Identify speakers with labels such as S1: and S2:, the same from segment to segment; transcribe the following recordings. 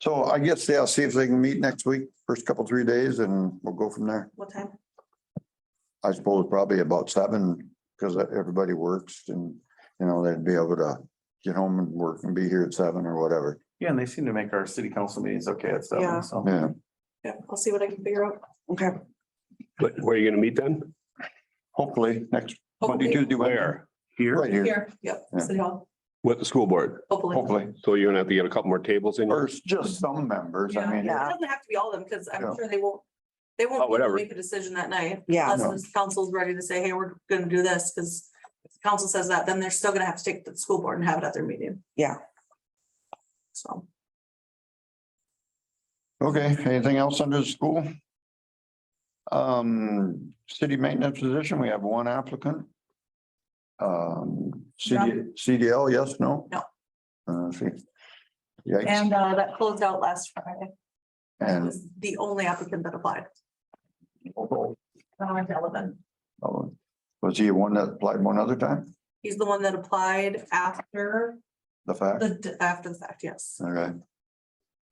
S1: So I guess, yeah, see if they can meet next week, first couple, three days, and we'll go from there.
S2: What time?
S1: I suppose probably about seven, because everybody works and, you know, they'd be able to get home and work and be here at seven or whatever.
S3: Yeah, and they seem to make our city council meetings okay at
S2: Yeah.
S3: seven, so.
S1: Yeah,
S2: Yeah, I'll see what I can figure out. Okay.
S4: But where are you gonna meet then?
S1: hopefully next Monday,
S2: Hopefully,
S1: Tuesday, Wednesday.
S4: Where? Here?
S1: Right here,
S2: Here, yep,
S1: Yeah.
S2: City Hall,
S4: With the school board?
S2: hopefully.
S1: hopefully.
S4: So you're gonna have to get a couple more tables in here?
S1: First, just some members, I
S2: Yeah,
S1: mean.
S2: It doesn't have to be all of them, because
S1: Yeah.
S2: I'm sure they won't, they won't be
S4: Oh,
S2: able to
S4: whatever.
S2: make a decision that night.
S5: Yeah,
S1: No.
S2: Unless the council's ready to say, hey, we're gonna do this, because if the council says that, then they're still gonna have to take it to the school board and have it at their meeting.
S5: Yeah.
S2: So,
S1: Okay, anything else under the school? Um, city maintenance position, we have one applicant. Um, CD, CDL, yes, no?
S2: No.
S1: Uh, let's see. Yikes,
S2: and uh, that closed out last Friday. That
S1: and,
S2: was The only applicant that applied. Now I'm relevant.
S1: oh, was he one that applied one other time,
S2: He's the one that applied after
S1: the fact?
S2: the, after the fact, yes.
S1: All right,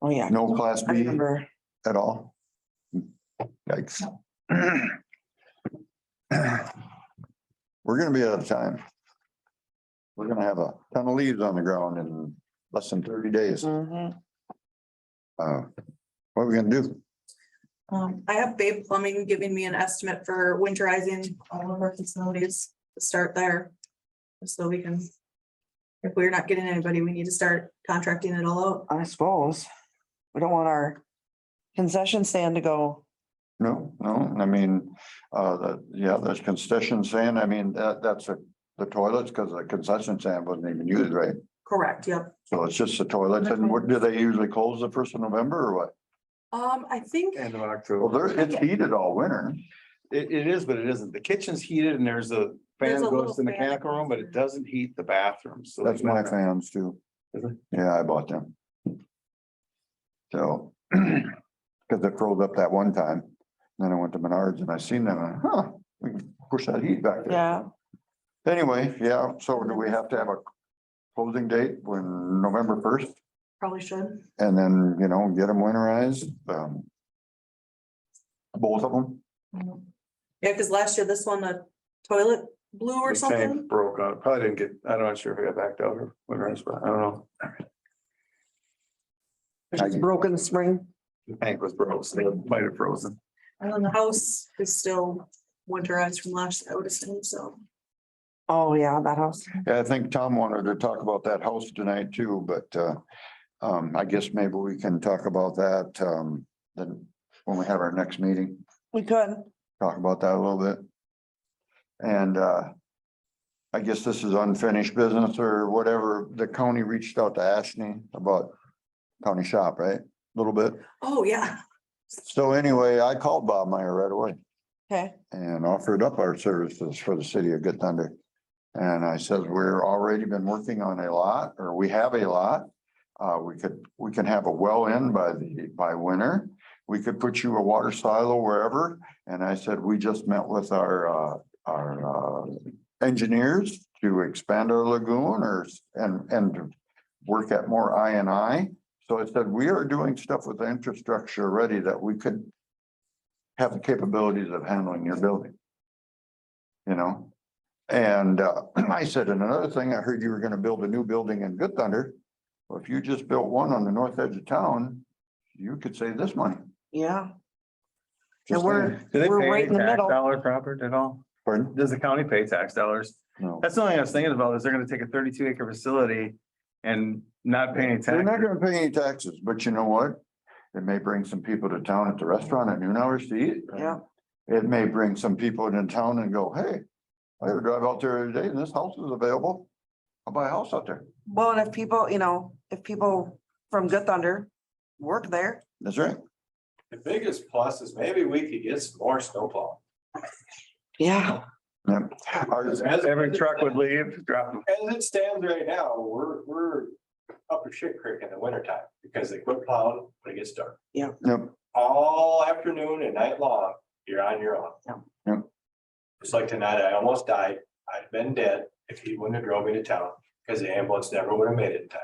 S5: oh, yeah.
S1: no class
S5: I
S1: B
S5: remember.
S1: at all? Yikes. We're gonna be out of time. We're gonna have a ton of leaves on the ground in less than thirty days.
S5: Mhm.
S1: Uh, what are we gonna do?
S2: Um, I have Babe Plumbing giving me an estimate for winterizing all of our facilities to start there. So we can. If we're not getting anybody, we need to start contracting it all out.
S5: I suppose. We don't want our concession stand to go,
S1: No, no, I mean, uh, the, yeah, the concession stand, I mean, that, that's a, the toilets, because the concession stand wasn't even used, right?
S2: Correct, yep.
S1: So it's just the toilets, and what, do they usually close the first of November or what?
S2: Um, I think,
S3: End of
S1: Well,
S3: October.
S1: there, it's heated all winter.
S3: It, it is, but it isn't. The kitchen's heated and there's a
S2: There's a
S3: fan that
S2: little
S3: goes to the
S2: fan.
S3: mechanical room, but it doesn't heat the bathroom, so.
S1: That's my fans too.
S3: Is it?
S1: Yeah, I bought them. So, because it froze up that one time, then I went to Menards and I seen them, and huh, we can push that heat back there.
S5: yeah.
S1: Anyway, yeah, so do we have to have a closing date when November first?
S2: probably should.
S1: And then, you know, get them winterized, um. Both of them,
S2: Yeah, because last year this one, the toilet blew or
S3: The
S2: something.
S3: tank broke out. Probably didn't get, I'm not sure if it got backed out or whatever, but I don't know.
S1: I-
S5: It's broken spring.
S3: The tank was frozen. It might have frozen.
S2: And then the house is still winterized from last, I would assume, so.
S5: Oh, yeah, that house.
S1: Yeah, I think Tom wanted to talk about that house tonight too, but, uh, um, I guess maybe we can talk about that, um, then. When we have our next meeting,
S5: We could.
S1: talk about that a little bit. And, uh. I guess this is unfinished business or whatever, the county reached out to Ashney about county shop, right? A Little bit.
S2: Oh, yeah.
S1: So anyway, I called Bob Meyer right away.
S5: Okay.
S1: And offered up our services for the city of Good Thunder. And I said, we're already been working on a lot, or we have a lot. Uh, we could, we can have a well in by the, by winter. We could put you a water silo wherever. And I said, we just met with our, uh, our, uh, engineers to expand our lagoon or, s- and, and to work at more I and I. So I said, we are doing stuff with the infrastructure already that we could have the capabilities of handling your building. You know? And uh, I said, and another thing, I heard you were gonna build a new building in Good Thunder. Well, if you just built one on the north edge of town, you could save this money.
S5: Yeah,
S1: Just
S5: And we're-
S1: saying.
S3: Do they
S5: We're
S3: pay
S5: right
S3: any
S5: in the
S3: tax
S5: middle.
S3: dollar proper at all?
S1: Pardon?
S3: Does the county pay tax dollars?
S1: No.
S3: That's the only thing I was thinking about is they're gonna take a thirty-two acre facility and not pay any tax.
S1: They're not gonna pay any taxes, but you know what? It may bring some people to town at the restaurant at noon hours to eat.
S5: yeah.
S1: It may bring some people into town and go, hey, I had to drive out there today and this house is available. I'll buy a house out there.
S5: Well, and if people, you know, if people from Good Thunder work there,
S1: That's right.
S6: The biggest plus is maybe we could get some more snowplow.
S5: yeah,
S1: Yep. Our-
S6: As as
S3: Every
S6: it
S3: truck would leave, drop them.
S6: as it stands right now, we're, we're up a shit creek in the wintertime because they quit plowing when it gets dark.
S1: Yep,
S6: All afternoon and night long, you're on your own.
S5: Yeah.
S1: Yeah.
S6: It's like tonight, I almost died. I'd been dead if he wouldn't have drove me to town because the ambulance never would have made it in time.